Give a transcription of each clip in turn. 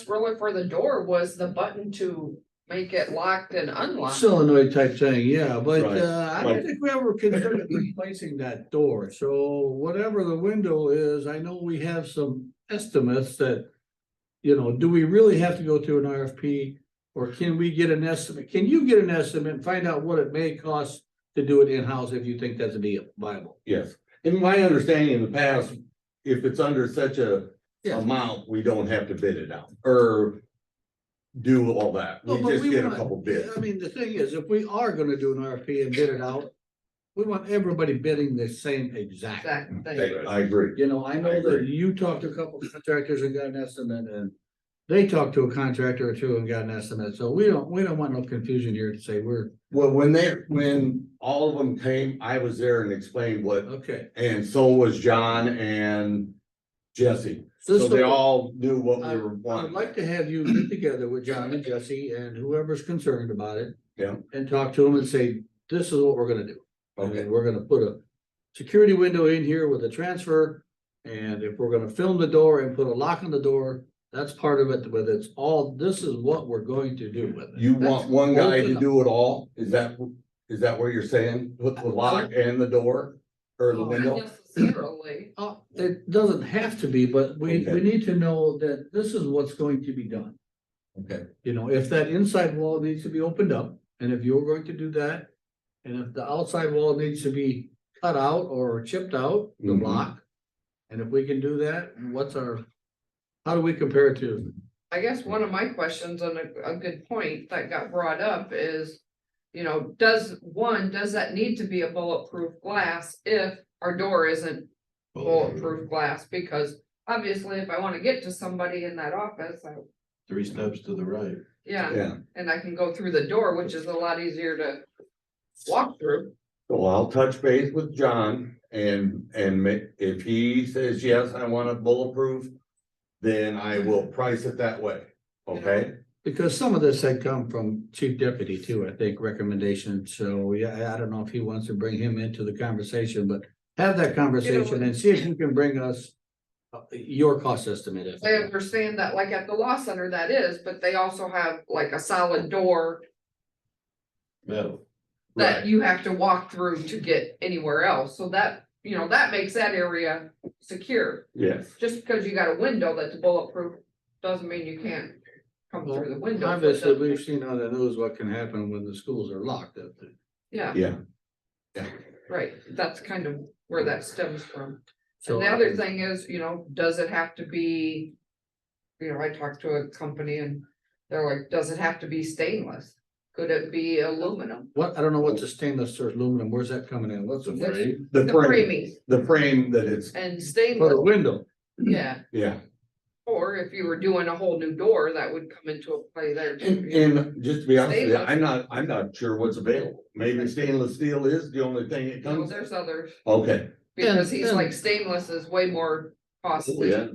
was really for the door was the button to make it locked and unlocked. solenoid type thing, yeah, but Right, uh, I right. don't think we ever considered replacing that door, so whatever the window is, I know we have some estimates that. You know, do we really have to go through an RFP, or can we get an estimate, can you get an estimate and find out what it may cost to do it in-house if you think that's viable? Yes, in my understanding in the past, if it's under such a Yeah. amount, we don't have to bid it out or do all that. We No, but just get a want- couple bids. I mean, the thing is, if we are gonna do an RFP and bid it out, we want everybody bidding the same exact. That I thing. I agree. You know, I know that agree. you talked to a couple contractors and got an estimate and they talked to a contractor or two and got an estimate, so we don't, we don't want no confusion here to say we're, Well, when they, when all of them came, I was there and explained what, okay. and so was John and Jesse. So they all knew what we were I would like wanting. to have you get together with John and Jesse and whoever's concerned about it. Yeah. And talk to them and say, this is what we're gonna do. Okay. And we're gonna put a security window in here with a transfer. And if we're gonna film the door and put a lock on the door, that's part of it, but it's all, this is what we're going to do with it. You want one guy to Open up. do it all? Is that, is that what you're saying? With the lock and the door Oh, or the Not window? Necessarily, Uh, it doesn't have to be, but we, Okay. we need to know that this is what's going to be done. Okay, You know, if that inside wall needs to be opened up, and if you're going to do that. And if the outside wall needs to be cut out or chipped out, the Mhm. block. And if we can do that, what's our, how do we compare it to? I guess one of my questions and a, a good point that got brought up is. You know, does, one, does that need to be a bulletproof glass if our door isn't bulletproof glass? Because obviously if I wanna get to somebody in that office, I, Three steps to the right. yeah, yeah. and I can go through the door, which is a lot easier to walk through. So I'll touch base with John and, and ma- if he says, yes, I want a bulletproof, then I will price it that way, okay? Because some of this had come from chief deputy too, I think, recommendation, so yeah, I- I don't know if he wants to bring him into the conversation, but. Have that conversation and see if you can bring us uh, your cost estimate. if- I understand that like at the law center that is, but they also have like a solid door Metal. that Right. you have to walk through to get anywhere else. So that, you know, that makes that area secure. Yes, Just because you got a window that's bulletproof doesn't mean you can't come through the window. so it Obviously, doesn't- we've seen on the news what can happen when the schools are locked up. Yeah, yeah. right. That's kind of where that stems from. So And the other thing is, you know, does it have to be? You know, I talked to a company and they're like, does it have to be stainless? Could it be aluminum? What, I don't know what's the stainless or aluminum, where's that coming in? What's The it? frame. The The frame, framing the frame that it's, and For the stainless, window. yeah. yeah. Or if you were doing a whole new door, that would come into a play there. too. And, and just to be honest with you, I'm not, I'm not sure what's available. Maybe stainless steel is the only thing it Well, comes. There's others, Okay. because he's and- like stainless is way more costly. Yeah.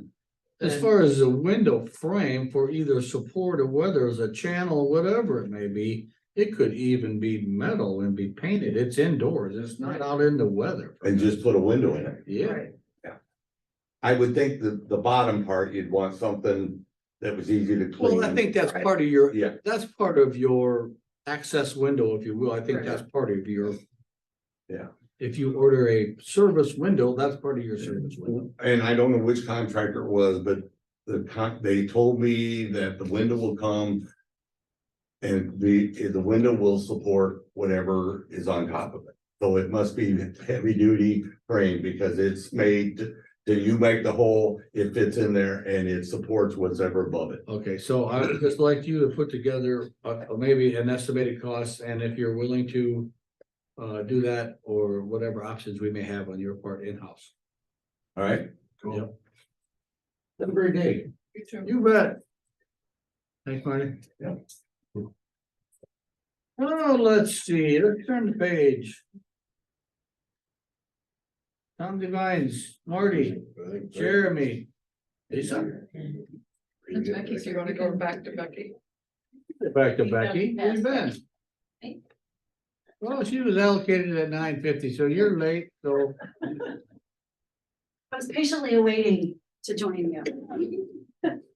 As than- far as the window frame for either support or whether it's a channel, whatever it may be, it could even be metal and be painted. It's indoors. It's not out in the weather. And just put a window in it. Yeah, Right. I would think the, the bottom part, you'd want something that was easy to clean. well, I think that's Right. part of your, Yeah. that's part of your access window, if you will. I think Right. that's part of your. Yeah. If you order a service window, that's part of your service window. And I don't know which contractor it was, but the con, they told me that the window will come. And the, the window will support whatever is on top of it. So it must be heavy duty frame because it's made to, to you make the hole, it fits in there and it supports whatever above it. Okay, so I would just like you to put together uh uh, maybe an estimated cost and if you're willing to. Uh, do that or whatever options we may have on your part in-house. All right? Yep. Have a great day. You too. You bet. Thanks, Marty. Yeah. Well, Oh, let's see, let's turn the page. Tom Devines, Marty, I think so. Jeremy. Lisa, And Becky, so you wanna go back to Becky? back to Becky, where you been? Hey. Well, she was allocated at nine fifty, so you're late, so I was patiently awaiting to join you.